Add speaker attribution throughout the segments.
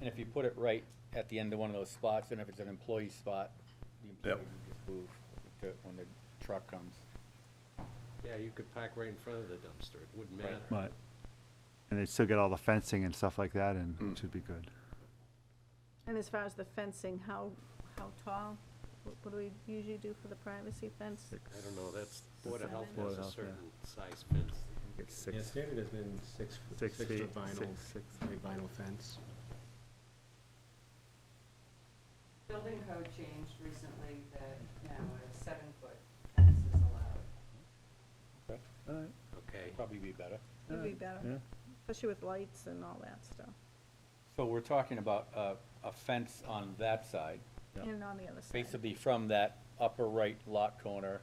Speaker 1: And if you put it right at the end of one of those spots, and if it's an employee spot, the employee can move to- when the truck comes.
Speaker 2: Yeah, you could park right in front of the dumpster, it wouldn't
Speaker 1: Right.
Speaker 2: matter.
Speaker 3: Right. And they still get all the fencing and stuff like that, and it should be good.
Speaker 4: And as far as the fencing, how, how tall? What what do we usually do for the privacy fence?
Speaker 2: I don't know, that's, Board of Health
Speaker 4: Seven.
Speaker 2: has
Speaker 3: Board of
Speaker 2: a
Speaker 3: Health, yeah.
Speaker 2: certain size fence.
Speaker 3: It's
Speaker 5: Yeah,
Speaker 3: six,
Speaker 5: standard has been six, f-
Speaker 3: Six
Speaker 5: six
Speaker 3: feet,
Speaker 5: foot vinyl,
Speaker 3: six- six.
Speaker 5: three vinyl fence.
Speaker 6: Building code changed recently that now a seven-foot fence is allowed.
Speaker 1: Okay,
Speaker 3: all right,
Speaker 2: Okay,
Speaker 1: Probably be better.
Speaker 4: Would be
Speaker 3: Uh, yeah.
Speaker 4: better, especially with lights and all that stuff,
Speaker 1: So we're talking about a, a fence on that side,
Speaker 3: Yeah.
Speaker 4: and on the other side.
Speaker 1: basically from that upper right lot corner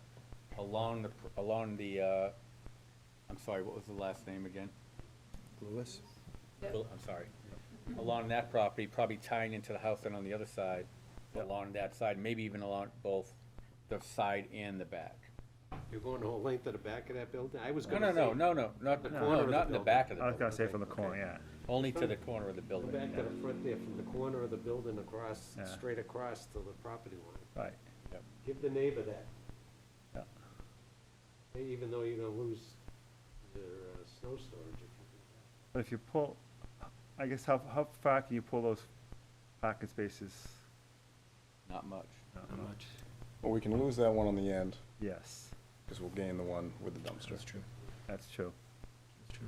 Speaker 1: along the, pr- along the, uh, I'm sorry, what was the last name again?
Speaker 7: Lewis?
Speaker 6: Yep.
Speaker 1: Well, I'm sorry, along that property, probably tying into the house and on the other side, along that side, maybe even along both the side and the back.
Speaker 2: you're going the whole length of the back of that building? I was
Speaker 1: No,
Speaker 2: gonna
Speaker 1: no,
Speaker 2: say.
Speaker 1: no, no, no, not,
Speaker 2: The corner
Speaker 1: no,
Speaker 2: of the
Speaker 1: not in the
Speaker 2: building.
Speaker 1: back of the
Speaker 3: I was
Speaker 1: building,
Speaker 3: gonna say from the corner, yeah.
Speaker 1: only to the corner of the
Speaker 2: Go
Speaker 1: building.
Speaker 2: back to
Speaker 1: yeah.
Speaker 2: the front there, from the corner of the building across,
Speaker 3: Yeah.
Speaker 2: straight across to the property line.
Speaker 3: Right,
Speaker 2: Give the neighbor that,
Speaker 3: yeah.
Speaker 2: even though you're gonna lose their uh, snow storage if you
Speaker 3: But if you pull, I guess how, how far can you pull those parking spaces?
Speaker 1: Not much.
Speaker 3: I don't
Speaker 5: Not
Speaker 3: know.
Speaker 5: much.
Speaker 7: Well, we can lose that one on the end,
Speaker 3: Yes,
Speaker 7: because we'll gain the one with the dumpster.
Speaker 5: That's true,
Speaker 3: that's true.
Speaker 5: that's true.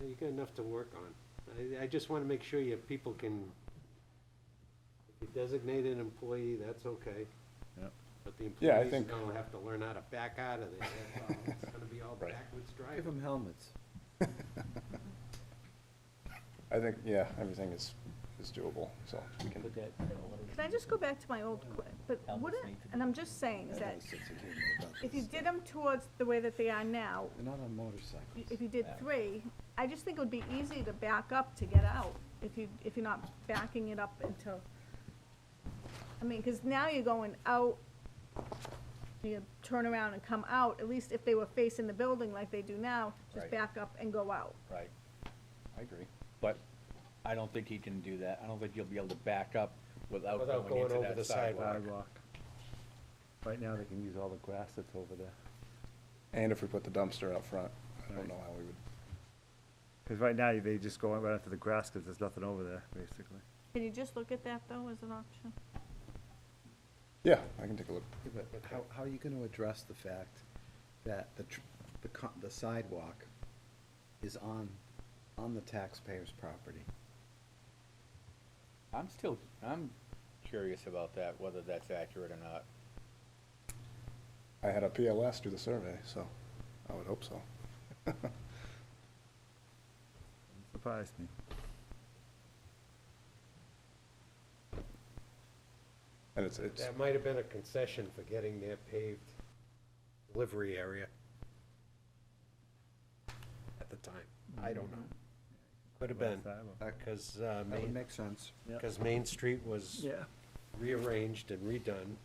Speaker 2: do that. You got enough to work on. I, I just wanna make sure your people can, if you designate an employee, that's okay.
Speaker 3: Yep.
Speaker 2: But the
Speaker 7: Yeah, I
Speaker 2: employees
Speaker 7: think-
Speaker 2: gonna have to learn how to back out of there, that's all. It's gonna be all
Speaker 7: Right.
Speaker 2: backwards
Speaker 8: Give
Speaker 2: driving.
Speaker 8: them helmets.
Speaker 7: I think, yeah, everything is, is doable, so we can.
Speaker 4: Can I just go back to my old, que- but
Speaker 1: Elvis
Speaker 4: wouldn't,
Speaker 1: need to
Speaker 4: and I'm just saying, is that if you did them towards the way that they are now,
Speaker 8: They're not on motorcycles.
Speaker 4: if you did three, I just think it would be easy to back up to get out, if you, if you're not backing it up until, I mean, because now you're going out, you turn around and come out, at least if they were facing the building like they do now,
Speaker 1: Right.
Speaker 4: just back up and go out.
Speaker 1: Right. I agree. But I don't think he can do that. I don't think you'll be able to back up without going
Speaker 2: Without going
Speaker 1: into
Speaker 2: over
Speaker 1: that
Speaker 2: the
Speaker 1: sidewalk.
Speaker 3: Sidewalk. Right now, they can use all the grass that's over there.
Speaker 7: And if we put the dumpster up front, I
Speaker 3: Right.
Speaker 7: don't know how we would,
Speaker 3: Because right now, they just go right after the grass because there's nothing over there, basically.
Speaker 4: Can you just look at that, though, as an option?
Speaker 7: yeah, I can take a look.
Speaker 8: Yeah, but How, how are you gonna address the fact that the, tr- the co- the sidewalk is on, on the taxpayer's property?
Speaker 1: I'm still, I'm curious about that, whether that's accurate or not.
Speaker 7: I had a PLS do the survey, so I would hope so.
Speaker 3: Surprised me.
Speaker 7: And it's, it's,
Speaker 2: That might have been a concession for getting their paved delivery area at the time. I don't know. Could have been,
Speaker 3: Sidewalk.
Speaker 8: That
Speaker 2: because, uh,
Speaker 8: that would
Speaker 2: Main,
Speaker 8: make sense.
Speaker 3: Yeah.
Speaker 2: because Main Street was
Speaker 3: Yeah.
Speaker 2: rearranged and redone.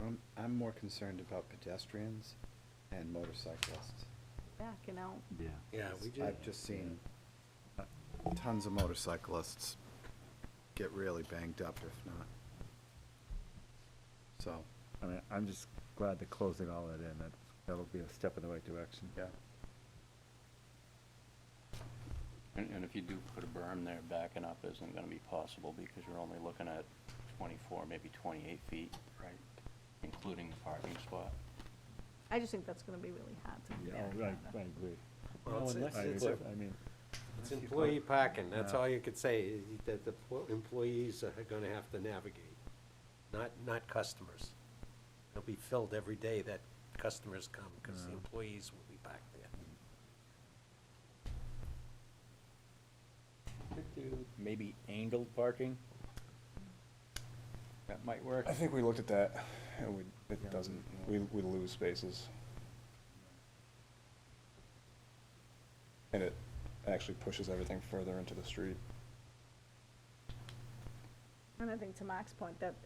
Speaker 8: I'm, I'm more concerned about pedestrians and motorcyclists.
Speaker 4: Backing out.
Speaker 3: Yeah.
Speaker 2: Yeah, we did.
Speaker 8: I've just seen tons of motorcyclists get really banged up if not. So,
Speaker 3: I mean, I'm just glad they're closing all that in. That, that'll be a step in the right direction.
Speaker 8: yeah.
Speaker 9: And, and if you do put a berm there, backing up isn't gonna be possible because you're only looking at twenty-four, maybe twenty-eight feet. Right. Including the parking spot.
Speaker 4: I just think that's gonna be really hard to
Speaker 3: Yeah,
Speaker 4: back.
Speaker 3: I, I agree.
Speaker 2: Well, it's- it's-
Speaker 3: I
Speaker 2: it's
Speaker 3: agree. I mean,
Speaker 2: It's employee parking, that's
Speaker 3: Yeah.
Speaker 2: all you could say, is that the po- employees are gonna have to navigate, not, not customers. It'll be filled every day that customers come, because the employees will be back there.
Speaker 1: Could do Maybe angled parking? That might work.
Speaker 7: I think we looked at that, and we, it doesn't, we, we lose spaces. And it actually pushes everything further into the street.
Speaker 4: And I think to Mark's point, that